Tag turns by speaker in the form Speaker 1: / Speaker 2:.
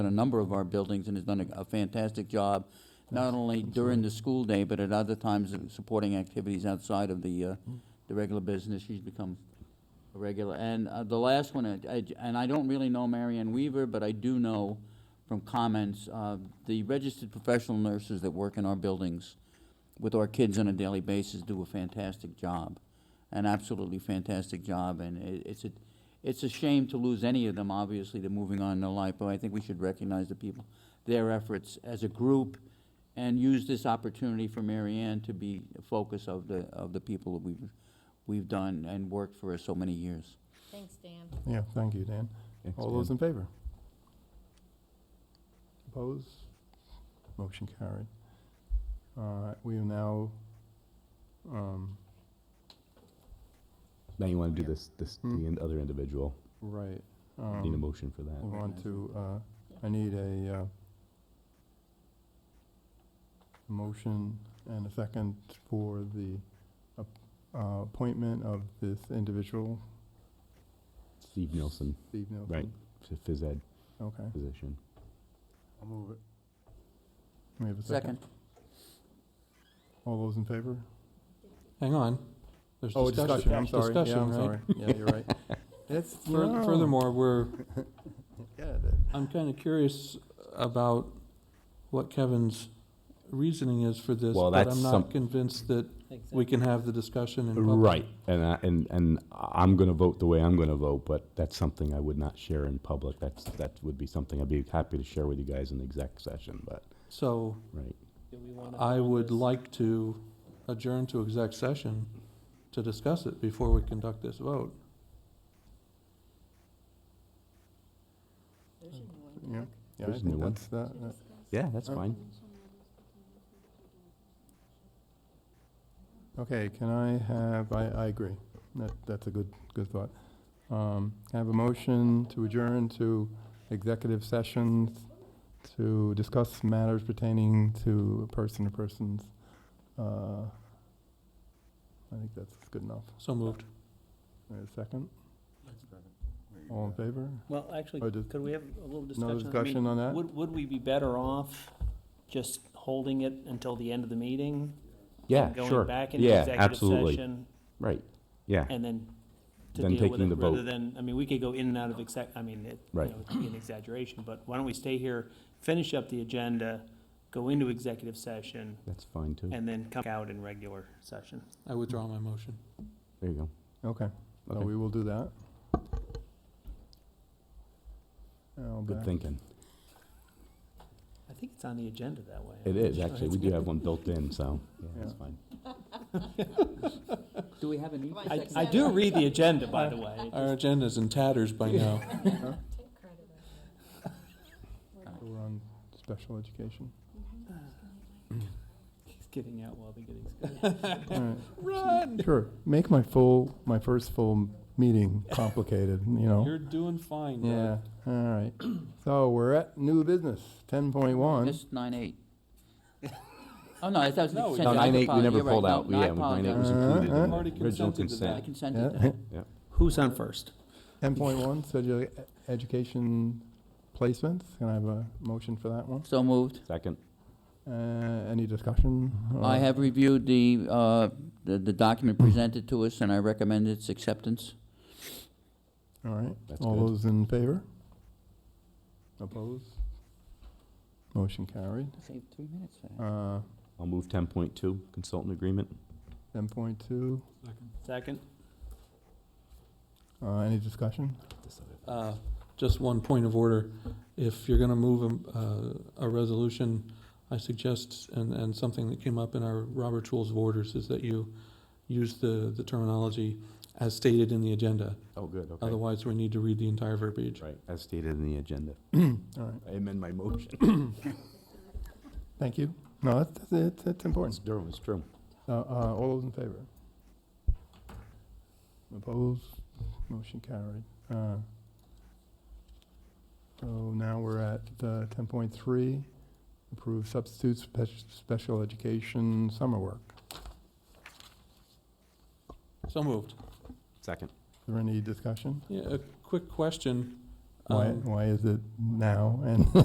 Speaker 1: in a number of our buildings and has done a- a fantastic job, not only during the school day, but at other times of supporting activities outside of the, uh, the regular business. She's become a regular. And uh, the last one, I- I- and I don't really know Marianne Weaver, but I do know from comments, uh, the registered professional nurses that work in our buildings with our kids on a daily basis do a fantastic job, an absolutely fantastic job. And it, it's a, it's a shame to lose any of them. Obviously, they're moving on in their life, but I think we should recognize the people, their efforts as a group, and use this opportunity for Mary Ann to be a focus of the of the people that we've we've done and worked for so many years.
Speaker 2: Thanks, Dan.
Speaker 3: Yeah, thank you, Dan. All those in favor? Opposed? Motion carried. Uh, We are now, um,
Speaker 4: Now you want to do this, this,
Speaker 3: Hmm.
Speaker 4: the in- other individual.
Speaker 3: right.
Speaker 4: Need a
Speaker 3: um,
Speaker 4: motion for that.
Speaker 5: Oh.
Speaker 3: Move on to, uh, I need a uh, motion and a second for the ap- uh, appointment of this individual,
Speaker 4: Steve Nielsen,
Speaker 3: Steve Nielsen.
Speaker 4: Right. to phys ed
Speaker 3: Okay,
Speaker 4: position.
Speaker 3: I'll move it. We have a second.
Speaker 1: Second,
Speaker 3: All those in favor?
Speaker 5: Hang on. There's
Speaker 3: Oh, discussion, I'm sorry. Yeah,
Speaker 5: Discussion,
Speaker 3: I'm
Speaker 5: right?
Speaker 3: sorry. Yeah, you're right. It's,
Speaker 5: Fur-
Speaker 3: no.
Speaker 5: Furthermore, we're,
Speaker 3: Yeah, that-
Speaker 5: I'm kind of curious about what Kevin's reasoning is for this,
Speaker 4: Well,
Speaker 5: but
Speaker 4: that's
Speaker 5: I'm
Speaker 4: some-
Speaker 5: not convinced that we can have the discussion in public.
Speaker 4: Right, and I, and, and I'm gonna vote the way I'm gonna vote, but that's something I would not share in public. That's, that would be something I'd be happy to share with you guys in the exec session, but,
Speaker 5: So
Speaker 4: right.
Speaker 5: I would like to adjourn to exec session to discuss it before we conduct this vote.
Speaker 2: There's your new one,
Speaker 3: Yeah.
Speaker 2: Doug.
Speaker 3: yeah, I
Speaker 4: There's a
Speaker 3: think
Speaker 4: new one.
Speaker 3: that's, that, that-
Speaker 4: Yeah, that's
Speaker 3: Uh,
Speaker 4: fine.
Speaker 3: okay, can I have, I, I agree. That, that's a good, good thought. Um, can I have a motion to adjourn to executive sessions to discuss matters pertaining to person to persons. Uh, I think that's good enough.
Speaker 5: So moved.
Speaker 3: Wait a second. All in favor?
Speaker 6: Well, actually,
Speaker 3: Or does-
Speaker 6: could we have a little discussion? I
Speaker 3: No
Speaker 6: mean,
Speaker 3: discussion on that?
Speaker 6: Would, would we be better off just holding it until the end of the meeting?
Speaker 4: Yeah,
Speaker 6: and
Speaker 4: sure.
Speaker 6: Going back into
Speaker 4: Yeah,
Speaker 6: executive
Speaker 4: absolutely.
Speaker 6: session
Speaker 4: Right, yeah,
Speaker 6: and then to
Speaker 4: Then
Speaker 6: deal with
Speaker 4: taking the
Speaker 6: it, rather
Speaker 4: vote.
Speaker 6: than, I mean, we could go in and out of exec, I mean, it, you
Speaker 4: Right.
Speaker 6: know, it'd be an exaggeration, but why don't we stay here, finish up the agenda, go into executive session,
Speaker 4: that's fine too.
Speaker 6: and then come out in regular session?
Speaker 5: I withdraw my motion.
Speaker 4: There you
Speaker 3: Okay, so
Speaker 4: Okay.
Speaker 3: we will do that. Now
Speaker 4: go. Good
Speaker 3: back-
Speaker 4: thinking.
Speaker 6: I think it's on the agenda that way.
Speaker 4: It is, actually. We do have one built in, so, yeah, that's
Speaker 3: Yeah.
Speaker 4: fine.
Speaker 1: do we have a need?
Speaker 2: for
Speaker 6: I, I do read the agenda, by the way. It
Speaker 5: Our agenda's in tatters by now.
Speaker 2: Take credit.
Speaker 3: So We're on special education.
Speaker 6: keeps getting out while they're getting.
Speaker 3: Run! Sure, make my full, my first full meeting complicated, you know?
Speaker 5: You're doing fine, Doug.
Speaker 3: Yeah, all right. So we're at new business, ten point one.
Speaker 1: Just nine eight. Oh, no, that was.
Speaker 5: No, we-
Speaker 1: consent.
Speaker 5: No,
Speaker 1: I
Speaker 4: 9-8, we
Speaker 1: apologize.
Speaker 4: never
Speaker 1: You're right.
Speaker 4: pulled
Speaker 1: No,
Speaker 4: out.
Speaker 1: no, I
Speaker 4: Yeah, 9-8
Speaker 1: apologize.
Speaker 4: was
Speaker 3: Uh,
Speaker 4: included in
Speaker 3: uh.
Speaker 4: the
Speaker 5: Already
Speaker 4: original
Speaker 5: consented to that.
Speaker 1: I
Speaker 4: consent.
Speaker 1: consented to that.
Speaker 6: Who's on first?
Speaker 3: Ten point one, special education placements, can I have a motion for that one?
Speaker 1: So moved.
Speaker 4: Second,
Speaker 3: Uh, any discussion?
Speaker 1: I
Speaker 3: Uh,
Speaker 1: have reviewed the, uh, the the document presented to us, and I recommend its acceptance.
Speaker 3: All right,
Speaker 4: That's
Speaker 3: all
Speaker 4: good.
Speaker 3: those in favor? Opposed? Motion carried.
Speaker 1: Saved three minutes there.
Speaker 3: Uh,
Speaker 4: I'll move ten point two, consultant agreement.
Speaker 3: ten point two,
Speaker 6: Second?
Speaker 3: uh, any discussion?
Speaker 5: Uh, Just one point of order. If you're going to move um, uh, a- a, a resolution, I suggest, and, and something that came up in our Robert Rules of Orders, is that you use the, the terminology as stated in the agenda.
Speaker 4: Oh, good, okay.
Speaker 5: Otherwise, we need to read the entire verbiage.
Speaker 4: Right, as stated in the agenda.
Speaker 3: All right,
Speaker 4: I amend my motion.
Speaker 3: thank you. No, that's, that's, it. that's important.
Speaker 4: It's true, it's true.
Speaker 3: Uh, uh, all those in favor? Opposed? Motion carried. Uh, So now we're at uh, ten point three, approve substitutes spec- special education summer work.
Speaker 5: So moved.
Speaker 4: Second.
Speaker 3: Is there any discussion?
Speaker 5: Yeah, a quick question.
Speaker 3: Why,
Speaker 5: Um,
Speaker 3: why is it now and